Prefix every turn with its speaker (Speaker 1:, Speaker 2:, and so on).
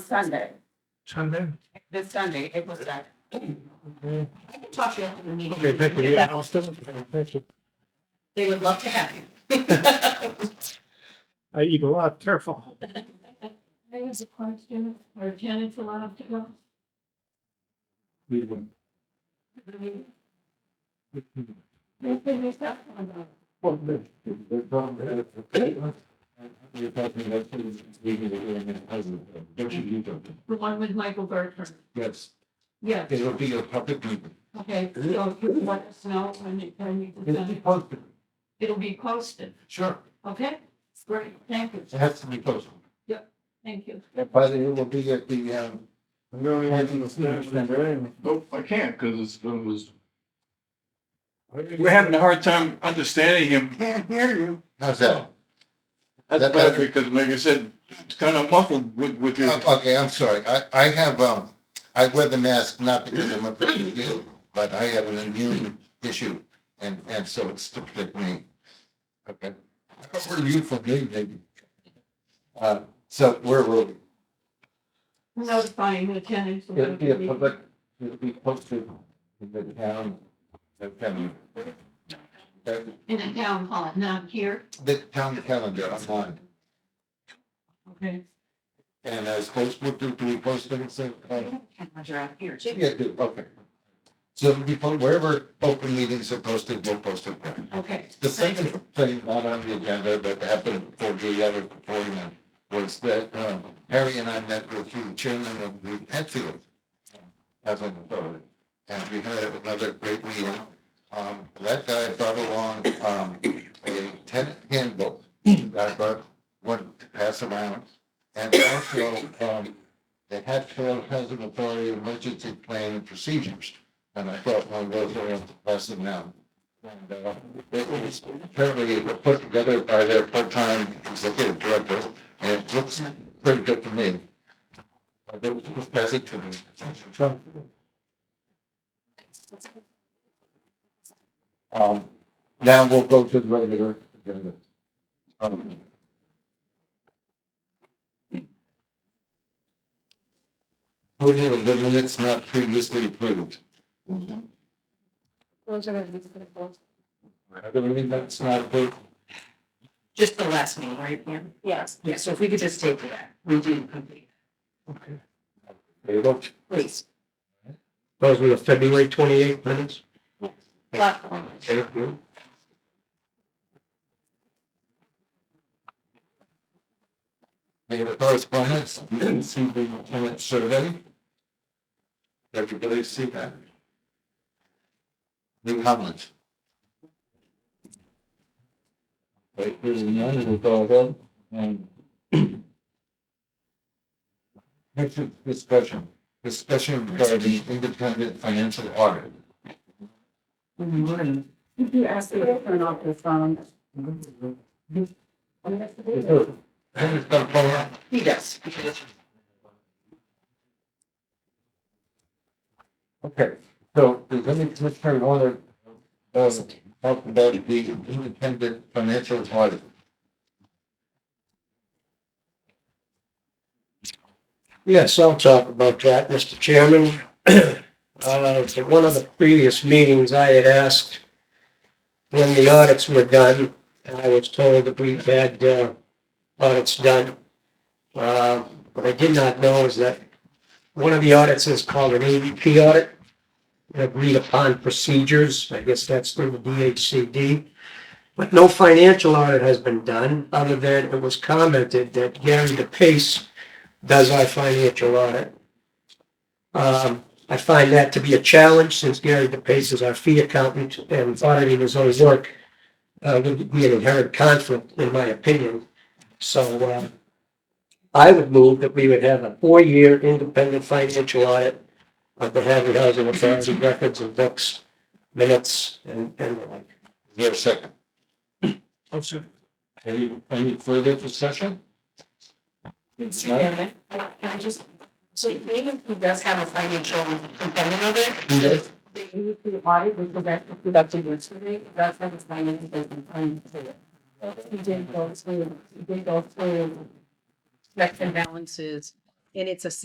Speaker 1: Sunday,
Speaker 2: Sunday?
Speaker 1: this Sunday, April second.
Speaker 2: Okay,
Speaker 1: I can talk to you after the meeting.
Speaker 2: Okay, thank you. Yeah, I'll still, thank you.
Speaker 1: They would love to have you.
Speaker 2: I eat a lot, careful.
Speaker 3: I have a question, are tenants allowed to go?
Speaker 2: We would-
Speaker 3: They finish that one up.
Speaker 2: Well, the- the problem is- You're talking about things leaving the hearing in prison, don't you do that?
Speaker 3: The one with Michael Bertram,
Speaker 2: Yes,
Speaker 3: yes,
Speaker 2: it'll be a public meeting.
Speaker 3: okay, so you want us to know when you, when you
Speaker 2: It'll be
Speaker 3: decide,
Speaker 2: posted,
Speaker 3: it'll be posted,
Speaker 2: sure,
Speaker 3: okay? Great, thank you,
Speaker 2: it has to be posted.
Speaker 3: thank you.
Speaker 2: And by then, it will be at the, um.
Speaker 4: Nope, I can't because it's, it was. We're having a hard time understanding him. Can't hear you.
Speaker 5: How's that?
Speaker 4: That's
Speaker 5: That
Speaker 4: better
Speaker 5: better?
Speaker 4: because like I said, it's kind of muffled with, with your.
Speaker 5: Oh, Okay, I'm sorry. I, I have, um, I wear the mask not because I'm a person ill, but I have an immune issue and, and so it's to protect me. Okay. Where are you from, me, maybe? Uh, so where will we?
Speaker 3: Notifying the tenants. about
Speaker 5: It'll be a
Speaker 3: the-
Speaker 5: public, it'll be posted in the town, the town. the-
Speaker 3: In a town hall, not here,
Speaker 5: The town calendar online.
Speaker 3: okay?
Speaker 5: And uh, I suppose, what do do we post it? So, uh,
Speaker 1: You're out here too.
Speaker 5: Yeah, do, okay. So it'll be put wherever open meetings are posted, we'll post it there.
Speaker 3: Okay,
Speaker 5: The second thing not on the agenda, but happened before the other appointment was that, um, Harry and I met with the chairman of the Hatfield. um, As an authority, and we had another great meeting. Um, that guy brought along, um, a tenant handbook. that I brought, one to pass around. And also, um, the Hatfield has an authority emergency plan and procedures. And I brought one of those around to pass them out. And, uh, it was apparently put together by their part-time executive director, and it looks pretty good to me. Uh, They will pass it to me. Um, now we'll go to the regular agenda. Um, Approval of Oh, the minutes not previously approved. Are there any minutes not approved?
Speaker 1: Just the last meeting, right, Pam? Yes. Yeah, so if we could just take that, we do complete,
Speaker 2: Okay. There you go.
Speaker 1: please.
Speaker 2: Those were the February twenty-eighth minutes.
Speaker 1: Platform.
Speaker 2: Thank you.
Speaker 5: Any other correspondence? You didn't see the tenant survey? Everybody see that? New Hamlet. Right, here's none, and it's all done, and. Next is discussion, discussion regarding independent financial audit.
Speaker 1: Did you ask me to turn off the um, phone?
Speaker 5: Is there- Tenant's got a phone up?
Speaker 1: He does.
Speaker 5: Okay, so does any commissioner want to, uh, talk about the independent financial audit?
Speaker 6: Yes, I'll talk about that, Mr. Chairman. Uh, At one of the previous meetings, I had asked when the audits were done, and I was told that we had uh, audits done. Uh, What I did not know is that one of the audits is called an AVP audit, an agreed upon procedures, I guess that's through the DHCD. But no financial audit has been done, other than it was commented that Gary DePace does our financial audit. Um, I find that to be a challenge since Gary DePace is our fee accountant and auditing his own work uh, would be an inherent conflict, in my opinion. So, uh, I would move that we would have a four-year independent financial audit of the Hadley Housing Authority records and books, minutes, and, and the like.
Speaker 5: Is there a second?
Speaker 2: Oh, sir.
Speaker 5: Any, any further discussion?
Speaker 1: Mr. Chairman, Can I just, so even he does have a financial component of it,
Speaker 5: Yes.
Speaker 1: the AEP audit, which was actually conducted yesterday, that's not his finances, that's been planned to it. He did go through, he did go through checks and balances, and it's a